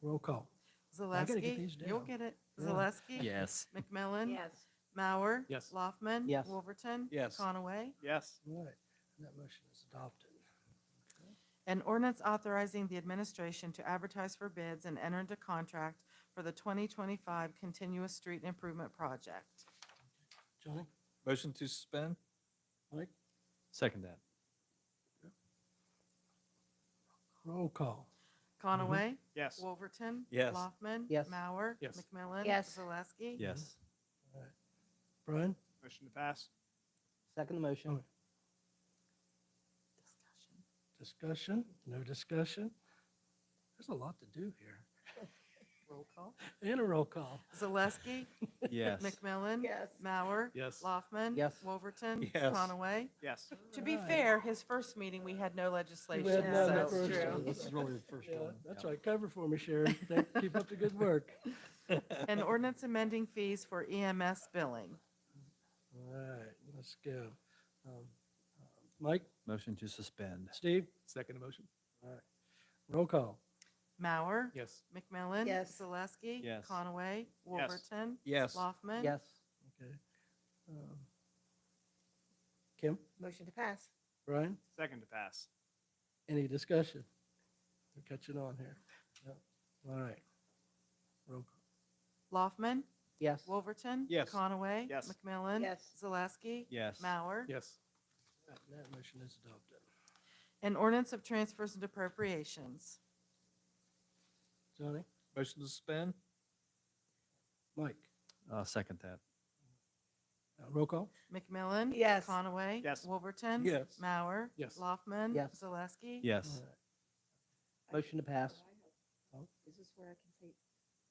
Roll call. I gotta get Zaleski, these you'll down. get it. Yeah. Zaleski. Yes. McMillan. Yes. Mauer. Yes. Laufman. Yes. Wolverton. Yes. Conaway. Yes. All right, and that motion is adopted. An ordinance authorizing the administration to advertise for bids and enter into contract for the 2025 continuous street improvement project. Johnny, Motion to suspend? Mike, Second that. roll call. Conaway. Mm-hmm. Yes. Wolverton. Yes. Laufman. Yes. Mauer. Yes. McMillan. Yes. Zaleski. Yes. Brian, Motion to pass? Second motion. Okay. discussion? No discussion? There's a lot to do here. Roll call. And a roll call. Zaleski. Yes. McMillan. Yes. Mauer. Yes. Laufman. Yes. Wolverton. Yes. Conaway. Yes. To be Alright. fair, his first meeting, we had no legislation. had none so- at That's first. true. This is really the first Yeah, That's right, cover for me, Sharon. Thank- Keep up the good work. An ordinance amending fees for EMS billing. All right, let's go. Um, uh, Mike, Motion to suspend? Steve, Second motion? roll call. Mauer. Yes. McMillan. Yes. Zaleski. Yes. Conaway. Wolverton. Yes. Laufman. Yes. Okay. Um, Kim, Motion to pass. Brian, Second to pass? any discussion? They're catching on here. Yep. All right. Roll call. Laufman. Yes. Wolverton. Yes. Conaway. Yes. McMillan. Yes. Zaleski. Yes. Mauer. Yes. All right, That motion is adopted. An ordinance of transfers and appropriations. Johnny, Motion to suspend? Mike, Uh, second that. uh, roll call. McMillan. Yes. Conaway. Yes. Wolverton. Yes. Mauer. Yes. Laufman. Yes. Zaleski. Yes. All right, Motion to pass. Oh. Is this where I can say?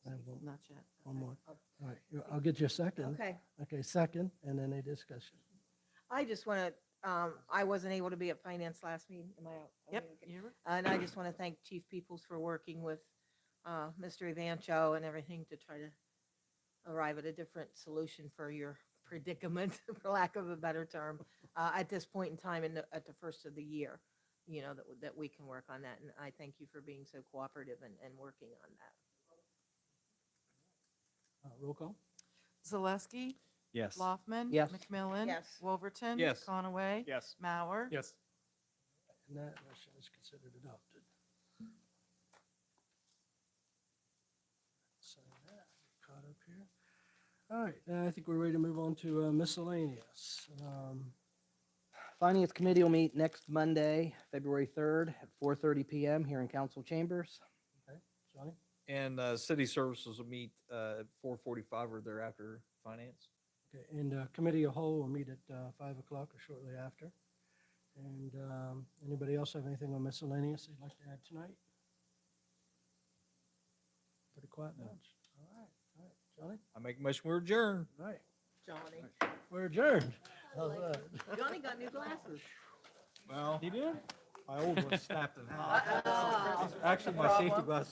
I have one- Not yet. One more. Oh. All right, you- I'll get you a second. Okay. Okay, second, and then a discussion. I just want to, um, I wasn't able to be at finance last meeting. Am I? out? Yep. Okay. you're- And I just want to thank Chief Peoples for working with, uh, Mr. Evancho and everything to try to arrive at a different solution for your predicament, for lack of a better term, uh, at this point in time and at the first of the year, you know, that, w- that we can work on that. And I thank you for being so cooperative and, and working on that. Uh, Roll call. Zaleski. Yes. Laufman. Yes. McMillan. Yes. Wolverton. Yes. Conaway. Yes. Mauer. Yes. And that motion is considered adopted. Sign that, caught up here. All right, uh, I think we're ready to move on to uh, miscellaneous. Um, Finance Committee will meet next Monday, February 3rd at 4:30 PM here in council chambers. Johnny, And, uh, city services will meet, uh, at four forty-five or thereafter, finance? okay, and uh, committee of whole will meet at uh, five o'clock or shortly after. And um, anybody else have anything on miscellaneous they'd like to add tonight? Pretty quiet No. bunch. All right, all right, Johnny, I make a motion, we adjourn. all right, Johnny. we're adjourned. How's that? Johnny got new glasses. Well. did? My old one snapped in half. Uh-oh. Actually, my safety glasses